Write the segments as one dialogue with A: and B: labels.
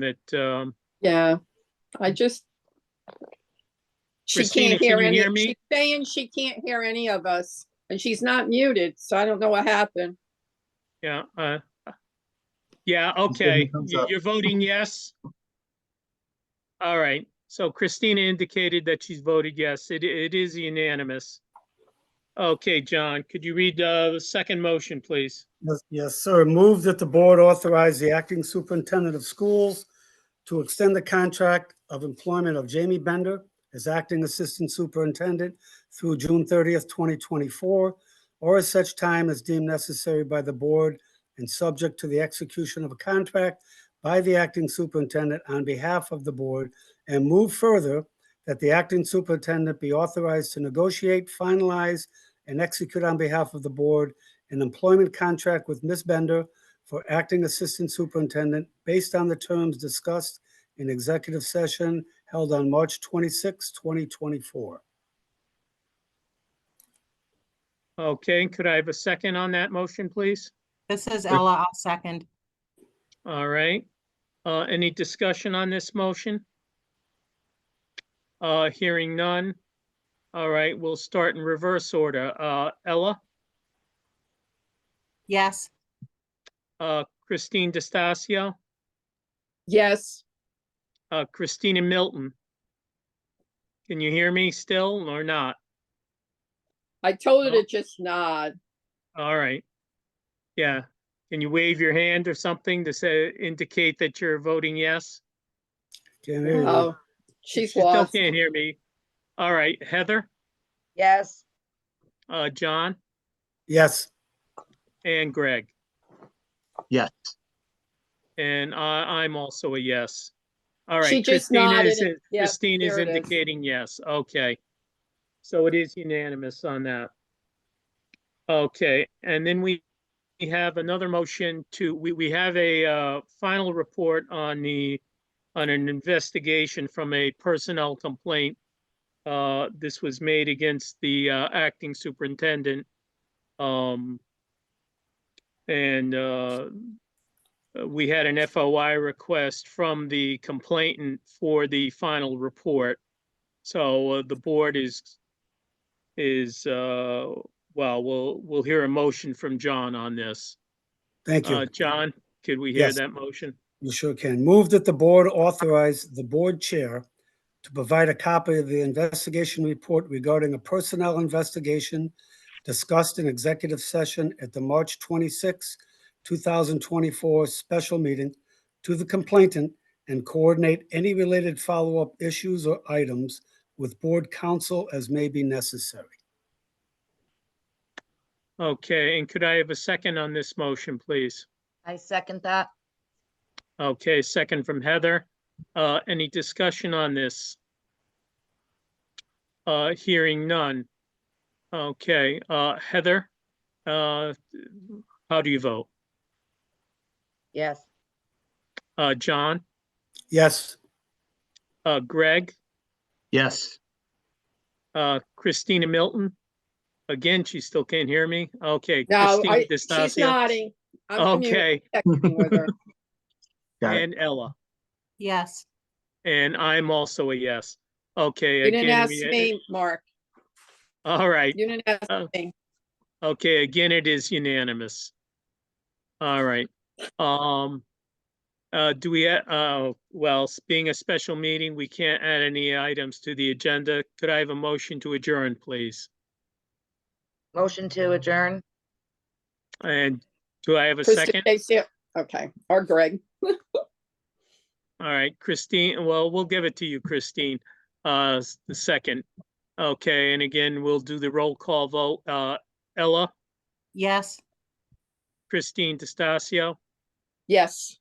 A: that, um,
B: Yeah, I just.
A: Hmm.
B: She
A: Christina,
B: can't
A: can
B: hear
A: you
B: any,
A: hear me?
B: she's saying she can't hear any of us and she's not muted, so I don't know what happened.
A: yeah, uh, yeah,
C: Just give me
A: okay,
C: thumbs
A: You-
C: up.
A: you're voting yes? All right, so Christina indicated that she's voted yes. It, it is unanimous. Okay, John, could you read uh, the second motion, please?
D: Yes- Yes, sir. Move that the board authorize the acting superintendent of schools to extend the contract of employment of Jamie Bender as acting assistant superintendent through June 30th, 2024, or as such time as deemed necessary by the board and subject to the execution of a contract by the acting superintendent on behalf of the board, and move further that the acting superintendent be authorized to negotiate, finalize, and execute on behalf of the board an employment contract with Ms. Bender for acting assistant superintendent based on the terms discussed in executive session held on March 26, 2024.
A: Okay, could I have a second on that motion, please?
E: This is Ella, I'll second.
A: All right. Uh, any discussion on this motion? Uh, hearing none. All right, we'll start in reverse order. Uh, Ella,
E: Yes,
A: uh, Christine DeStacia,
B: Yes,
A: uh, Christina Milton. Can you hear me still or not?
B: I told her
A: Well-
B: to just nod.
A: All right. Yeah. Can you wave your hand or something to say, indicate that you're voting yes?
D: Can't hear you.
B: Oh,
A: She
B: she's
A: still
B: lost.
A: can't hear me. All right, Heather,
F: Yes,
A: uh, John
D: Yes,
A: and Greg.
C: Yes,
A: And I, I'm also a yes. All right.
B: She just
A: Christina
B: nodded
A: is
B: it.
A: in-
B: Yep,
A: Christine is
B: there it is.
A: indicating yes. Okay. So it is unanimous on that. Okay, and then we we have another motion to, we, we have a, uh, final report on the, on an investigation from a personnel complaint. Uh, this was made against the, uh, acting superintendent. Um, and, uh, uh, we had an FOI request from the complainant for the final report. So uh, the board is, is, uh, well, we'll, we'll hear a motion from John on this.
D: thank
A: Uh,
D: you.
A: John, could we hear
D: Yes.
A: that motion?
D: You sure can. Move that the board authorize the board chair to provide a copy of the investigation report regarding a personnel investigation discussed in executive session at the March 26, 2024 special meeting to the complainant and coordinate any related follow-up issues or items with board counsel as may be necessary.
A: Okay, and could I have a second on this motion, please?
F: I second that.
A: Okay, second from Heather. Uh, any discussion on this? Uh, hearing none. Okay, uh, Heather, uh, how do you vote?
F: Yes,
A: Uh, John,
D: Yes,
A: uh, Greg,
C: yes,
A: uh, Christina Milton. Again, she still can't hear me. Okay.
B: No,
A: Christina
B: I, she's
A: D'Estacio.
B: nodding. I'm
A: Okay,
B: communicating with her.
C: got it.
A: and Ella,
E: yes,
A: and I'm also a yes. Okay.
B: You didn't
A: again,
B: ask
A: we- uh,
B: me, Mark.
A: All right.
B: You didn't ask
A: Uh,
B: me.
A: Okay, again, it is unanimous. All right, um, uh, do we, ha- uh, well, s- being a special meeting, we can't add any items to the agenda. Could I have a motion to adjourn, please?
F: motion to adjourn.
A: And do I have a
B: Krista
A: second?
B: Casey, okay, or Greg.
A: All right, Christine, well, we'll give it to you, Christine, uh, s- the second. Okay, and again, we'll do the roll call vote. Uh, Ella,
E: yes.
A: Christine DeStacio,
B: Yes.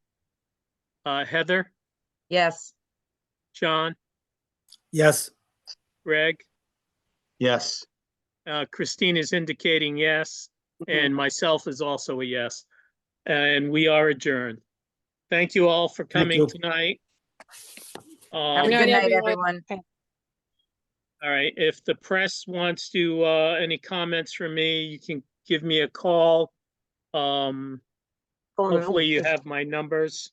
A: uh, Heather,
F: Yes.
A: John,
D: yes.
A: Greg.
C: yes.
A: Uh, Christine is indicating yes, and myself is also a yes. And we are adjourned. Thank you all for coming
D: you.
A: tonight.
F: Have a
A: Um,
B: Good night,
F: good night,
B: everyone.
F: everyone.
A: all right, if the press wants to, uh, any comments from me, you can give me a call. Um, hopefully you have my numbers.